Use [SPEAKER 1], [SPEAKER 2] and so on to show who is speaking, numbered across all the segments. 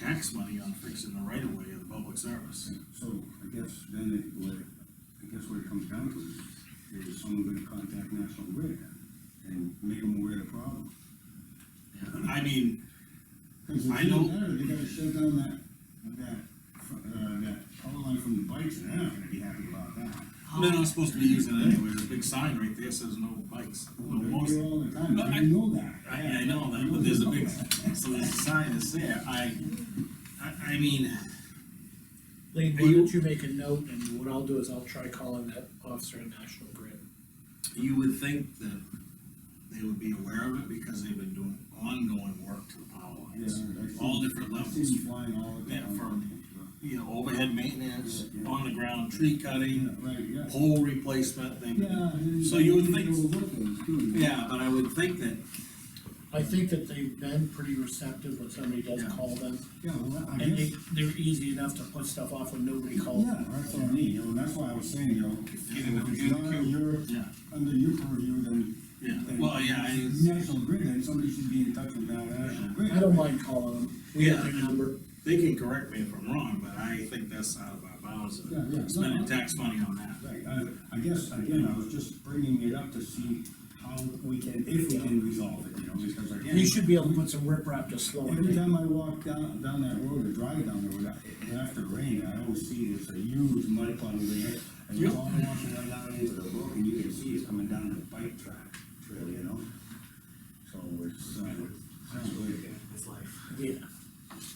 [SPEAKER 1] tax money on fixing the right of way of the public service.
[SPEAKER 2] So I guess then it, what, I guess what it comes down to is, is someone gonna contact National Grid and make them aware of the problem.
[SPEAKER 1] I mean,
[SPEAKER 2] 'Cause if
[SPEAKER 1] I
[SPEAKER 2] they
[SPEAKER 1] know-
[SPEAKER 2] don't, They gotta shut down that, that, uh, that power line from the bikes, and they're not gonna be happy about that.
[SPEAKER 1] they're not supposed to be using it anyway, there's a big sign right there says no bikes. no
[SPEAKER 2] They're
[SPEAKER 1] motor-
[SPEAKER 2] here all the time,
[SPEAKER 1] But I-
[SPEAKER 2] you know that.
[SPEAKER 1] I, I know that, but there's a big,
[SPEAKER 2] Yeah.
[SPEAKER 1] so there's a sign that's there, I, I, I mean,
[SPEAKER 3] Lean, why
[SPEAKER 1] Are you-
[SPEAKER 3] don't you make a note, and what I'll do is I'll try calling that officer at National Grid.
[SPEAKER 1] you would think that they would be aware of it because they've been doing ongoing work to the power lines.
[SPEAKER 2] I've
[SPEAKER 1] All
[SPEAKER 2] seen-
[SPEAKER 1] different
[SPEAKER 2] I've
[SPEAKER 1] levels,
[SPEAKER 2] seen them flying all the
[SPEAKER 1] Yeah,
[SPEAKER 2] time.
[SPEAKER 1] from- you know, overhead maintenance,
[SPEAKER 2] Yeah, yeah.
[SPEAKER 1] on the ground tree
[SPEAKER 2] Yeah,
[SPEAKER 1] cutting,
[SPEAKER 2] right, yeah.
[SPEAKER 1] pole replacement, they,
[SPEAKER 2] Yeah. and-
[SPEAKER 1] So you would think-
[SPEAKER 2] They were working, too.
[SPEAKER 1] yeah, but I would think that
[SPEAKER 3] I think that they've been pretty receptive when somebody does
[SPEAKER 1] Yeah.
[SPEAKER 3] call them,
[SPEAKER 2] Yeah, well, I
[SPEAKER 3] and
[SPEAKER 2] guess.
[SPEAKER 3] they, they're easy enough to put stuff off when nobody calls.
[SPEAKER 2] Yeah, that's what I mean, you know, that's why I was saying, you know, if
[SPEAKER 1] Get in the-
[SPEAKER 2] it's not under your,
[SPEAKER 1] Yeah.
[SPEAKER 2] under your purview, then.
[SPEAKER 1] Yeah.
[SPEAKER 2] then
[SPEAKER 1] Well, yeah, I-
[SPEAKER 2] it's National Grid, then somebody should be in touch with that National Grid.
[SPEAKER 3] I don't mind calling them, we have their number,
[SPEAKER 1] They can correct me if I'm wrong, but I think that's out of our bounds
[SPEAKER 2] Yeah, yeah.
[SPEAKER 1] of spending tax money on that.
[SPEAKER 2] Right, I, I guess, again, I was just bringing it up to see how we can, if we can resolve it, you know, because again.
[SPEAKER 3] you should be able to put some riprap to slow it
[SPEAKER 2] Every
[SPEAKER 3] down.
[SPEAKER 2] time I walk down, down that road or drive down the road, I- after rain, I always see there's a huge mud puddle there. And you're
[SPEAKER 1] Yep.
[SPEAKER 2] all washing right down into the brook and you can see it's coming down the bike track, trail, you know? So it's, uh, sounds good.
[SPEAKER 4] It's life.
[SPEAKER 3] Yeah,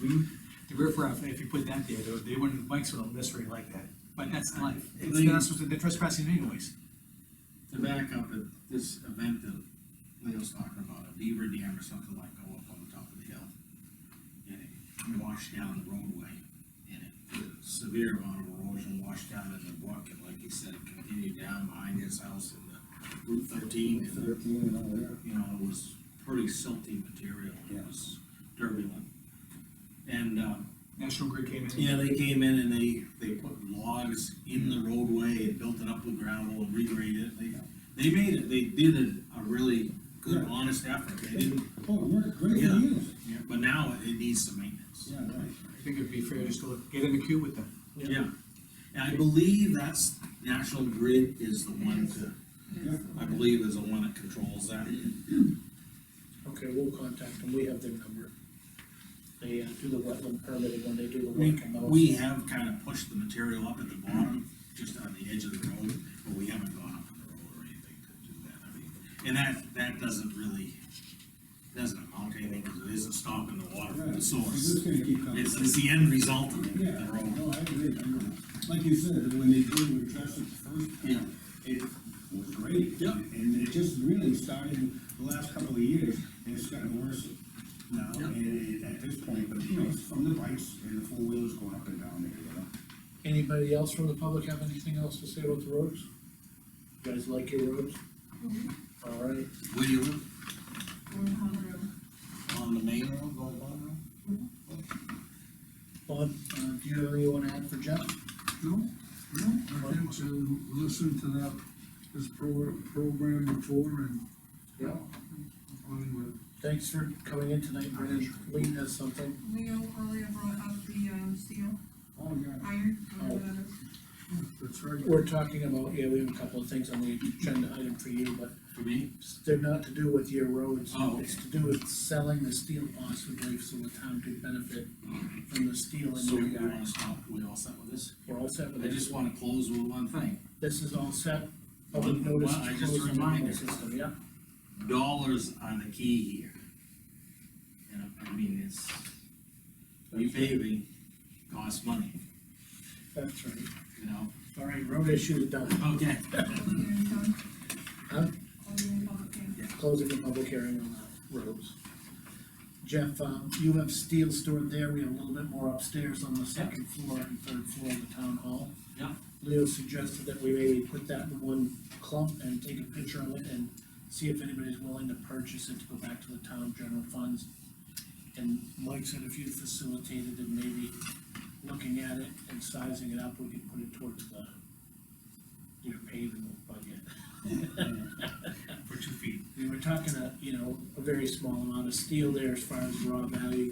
[SPEAKER 4] The riffraff, if you put that there, they, they wouldn't, bikes would necessarily like that, but that's life. It's,
[SPEAKER 1] They-
[SPEAKER 4] they're not supposed to, they're trespassing anyways.
[SPEAKER 1] To back up at this event that Leo's talking about, a beaver dam or something like go up on the top of the hill. And it washed down the roadway and it did a severe amount of erosion washed down in the brook and like he said, it continued down behind his house in the Route thirteen. and,
[SPEAKER 2] Thirteen and all there.
[SPEAKER 1] You know, it was pretty silty material. It
[SPEAKER 2] Yeah.
[SPEAKER 1] was turbulent. And, um,
[SPEAKER 4] National Grid came in.
[SPEAKER 1] Yeah, they came in and they, they put logs in the roadway and built it up with gravel and regraded it, they, they made it, they did a, a really good,
[SPEAKER 2] Yeah.
[SPEAKER 1] honest effort, they didn't,
[SPEAKER 2] Oh, it worked great for
[SPEAKER 1] Yeah.
[SPEAKER 2] years.
[SPEAKER 1] but now it needs some maintenance.
[SPEAKER 2] Yeah, right.
[SPEAKER 4] I think it'd be fair just to look- get in the queue with them.
[SPEAKER 1] Yeah, and I believe that's, National Grid is the one to,
[SPEAKER 2] Yeah.
[SPEAKER 1] I believe is the one that controls that.
[SPEAKER 3] okay, we'll contact them, we have their number. They uh, do the wetland permitting when they do the
[SPEAKER 1] We,
[SPEAKER 3] work on those.
[SPEAKER 1] we have kind of pushed the material up at the bottom, just on the edge of the road, but we haven't gone up on the road or anything to do that, I mean, and that, that doesn't really, doesn't amount to anything, because it isn't stopping the water from
[SPEAKER 2] Yeah,
[SPEAKER 1] the
[SPEAKER 2] it's
[SPEAKER 1] source.
[SPEAKER 2] just gonna keep coming.
[SPEAKER 1] It's, it's the end result of it,
[SPEAKER 2] Yeah,
[SPEAKER 1] the road.
[SPEAKER 2] no, I agree, I agree. Like you said, when they did with Trestle the first
[SPEAKER 1] Yeah.
[SPEAKER 2] time, it was great.
[SPEAKER 1] Yep.
[SPEAKER 2] And it just really started the last couple of years, and it's gotten worse now,
[SPEAKER 1] Yep.
[SPEAKER 2] and it- at this point, but you know, it's from the bikes and the four wheelers going up and down there, you know?
[SPEAKER 3] Anybody else from the public have anything else to say about the roads? You guys like your roads? All right,
[SPEAKER 1] Where do you live?
[SPEAKER 5] Warren Pond Road.
[SPEAKER 1] On the main road, going on
[SPEAKER 3] Bob, uh, do you have anyone to add for Jeff?
[SPEAKER 6] No, no, I think to listen to that, this pro- program before and.
[SPEAKER 3] Yeah.
[SPEAKER 6] On with,
[SPEAKER 3] Thanks for coming in tonight, Brendan, Lee has something.
[SPEAKER 5] Leo earlier brought up the, um, steel,
[SPEAKER 2] Oh, yeah.
[SPEAKER 5] iron, whatever that is.
[SPEAKER 6] that's right.
[SPEAKER 3] We're talking about, yeah, we have a couple of things on the agenda item for you, but
[SPEAKER 1] For me?
[SPEAKER 3] they're not to do with your roads.
[SPEAKER 1] Oh, okay.
[SPEAKER 3] It's to do with selling the steel possibly, so the town could benefit from the steel
[SPEAKER 1] So we
[SPEAKER 3] in their
[SPEAKER 1] wanna
[SPEAKER 3] yards.
[SPEAKER 1] stop, we all set with this?
[SPEAKER 3] We're all set with
[SPEAKER 1] I
[SPEAKER 3] this,
[SPEAKER 1] just wanna close with one thing.
[SPEAKER 3] this is all set, public
[SPEAKER 1] Well,
[SPEAKER 3] notice
[SPEAKER 1] I
[SPEAKER 3] is
[SPEAKER 1] just
[SPEAKER 3] closed on the
[SPEAKER 1] reminded.
[SPEAKER 3] whole system, yeah?
[SPEAKER 1] dollars are the key here. And I mean, it's, repaving costs money,
[SPEAKER 3] That's right.
[SPEAKER 1] you know?
[SPEAKER 3] All right, road issue done,
[SPEAKER 1] Okay.
[SPEAKER 5] Public hearing done.
[SPEAKER 3] Huh?
[SPEAKER 5] Closing the public hearing.
[SPEAKER 3] closing the public hearing on the roads. Jeff, um, you have steel stored there, we have a little bit more upstairs on the second floor and third floor of the town hall.
[SPEAKER 1] Yeah.
[SPEAKER 3] Leo suggested that we maybe put that in one clump and take a picture of it and see if anybody's willing to purchase it to go back to the town general funds. And Mike said if you facilitated and maybe looking at it and sizing it up, we could put it towards the, your paving budget.
[SPEAKER 1] For two feet.
[SPEAKER 3] We were talking a, you know, a very small amount of steel there as far as raw value